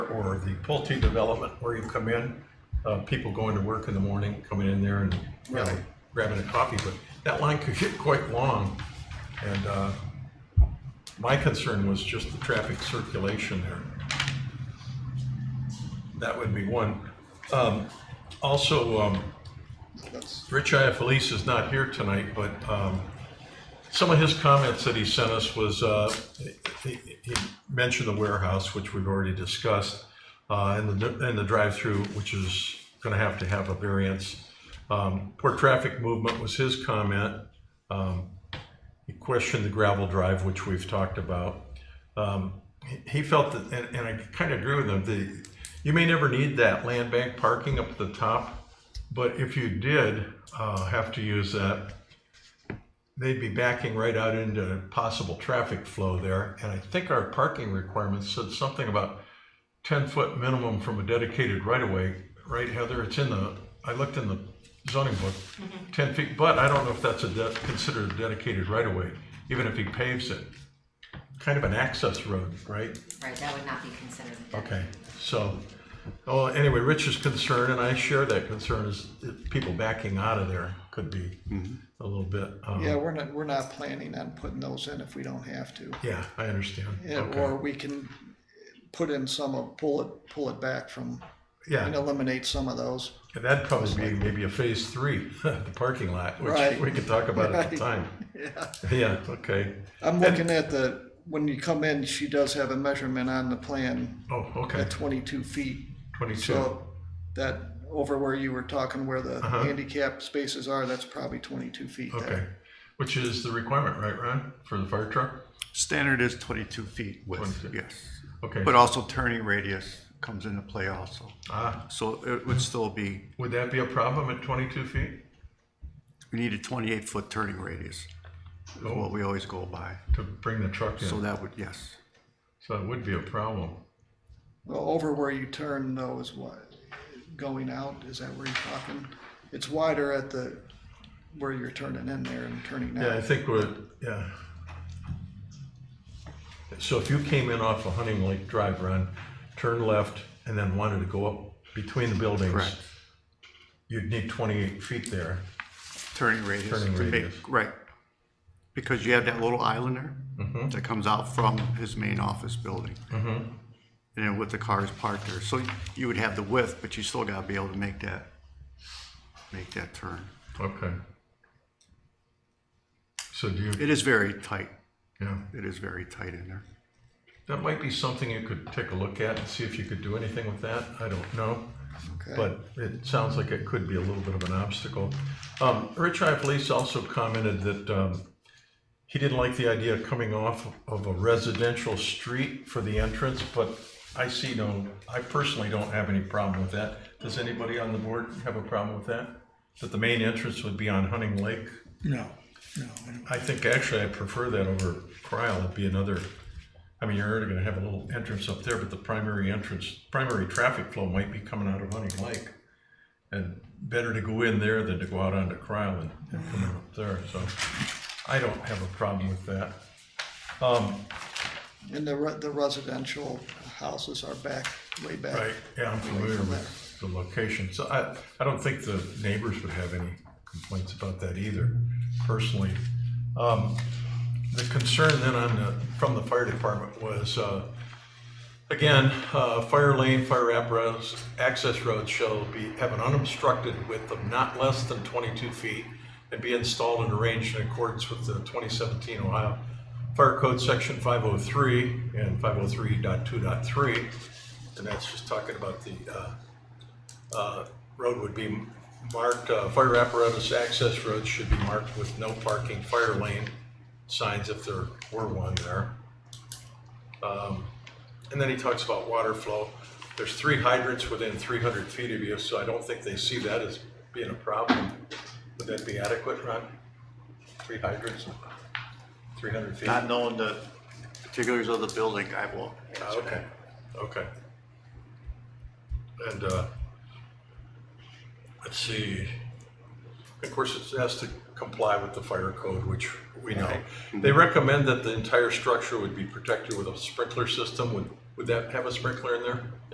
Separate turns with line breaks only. the Pulte development where you come in, uh, people going to work in the morning, coming in there and, you know,
Right.
grabbing a coffee, but that line could get quite long. And, uh, my concern was just the traffic circulation there. That would be one. Um, also, um,
That's,
Rich Iafelis is not here tonight, but um, some of his comments that he sent us was, uh, he he mentioned the warehouse, which we've already discussed, uh, and the, and the drive-through, which is going to have to have a variance. Um, Poor traffic movement was his comment. Um, He questioned the gravel drive, which we've talked about. Um, he- He felt that, and and I kind of agree with him, the, you may never need that land bank parking up at the top, but if you did uh, have to use that, they'd be backing right out into possible traffic flow there. And I think our parking requirements said something about 10-foot minimum from a dedicated right-of-way, right, Heather? It's in the, I looked in the zoning book, 10 feet, but I don't know if that's a de- considered a dedicated right-of-way, even if he paves it. Kind of an access road, right?
Right, that would not be considered. a debt.
Okay, so, oh, anyway, Rich's concern, and I share that concern, is that people backing out of there could be a little bit. um,
yeah, we're not, we're not planning on putting those in if we don't have to.
Yeah, I understand.
Yeah,
Okay.
Or we can put in some of, pull it, pull it back from, and
Yeah,
eliminate some of those.
and that'd probably be maybe a phase three, the parking lot, which
Right.
we could talk about at the
Right.
time.
Yeah.
Yeah, okay.
I'm looking at the, when you come in, she does have a measurement on the plan
Oh, okay,
at twenty-two feet.
twenty-two.
So that, over where you were talking, where the
Uh-huh.
handicap spaces are, that's probably twenty-two feet
Okay,
there.
which is the requirement, right, Ron, for the fire truck?
Standard is twenty-two feet width,
22.
yes.
Okay,
But uh, also turning radius comes into play also.
ah,
So it would still be,
would that be a problem at twenty-two feet?
we need a twenty-eight foot turning radius. Is
Oh.
what we always go by.
To bring the truck in,
So
so
that would, yes.
that would be a problem.
Well, over where you turn though is what, going out, is that where you're talking? It's wider at the, where you're turning in there and turning
Yeah, I
out.
think we're, yeah. So if you came in off of Hunting Lake Drive, Ron, turned left, and then wanted to go up between the buildings,
Correct.
you'd need twenty-eight feet there.
Turning radius.
Turning
to make-
radius.
Right. Because you have that little island
Mm-hmm.
there that comes out from his main office building. And then with the cars parked there. So you would have the width, but you still gotta be able to make that, make that turn.
Okay. So do you,
It is very tight.
yeah,
It is very tight in there.
that might be something you could take a look at and see if you could do anything with that. I don't know.
Okay.
But it sounds like it could be a little bit of an obstacle. Um, Rich Iapolis also commented that, um, he didn't like the idea of coming off of a residential street for the entrance, but I see no, I personally don't have any problem with that. Does anybody on the board have a problem with that? That the main entrance would be on Hunting Lake?
No, no.
I think actually I prefer that over Cryle, it'd be another, I mean, you're already gonna have a little entrance up there, but the primary entrance, primary traffic flow might be coming out of Hunting Lake. And better to go in there than to go out onto Cryle and and come in up there, so I don't have a problem with that. Um,
And the, re- the residential houses are back, way back.
right, yeah, I'm familiar with the location, so I, I don't think the neighbors would have any complaints about that either, personally. Um, The concern then on the, from the fire department was, uh, again, uh, fire lane, fire apparatus, access roads shall be, have an unobstructed width of not less than twenty-two feet and be installed and arranged in accordance with the twenty seventeen Ohio Fire Code Section five oh three and five oh three dot two dot three. And that's just talking about the, uh, uh, road would be marked, uh, fire apparatus access roads should be marked with no parking fire lane signs if there were one there. Um, And then he talks about water flow. There's three hydrants within three hundred feet of you, so I don't think they see that as being a problem. Would that be adequate, Ron? Three hydrants, three hundred feet?
Not knowing the particulars of the building, I will.
Ah, Okay, okay. And, uh, let's see, of course, it has to comply with the fire code, which we know. They recommend that the entire structure would be protected with a sprinkler system. Would, would that have a sprinkler in there?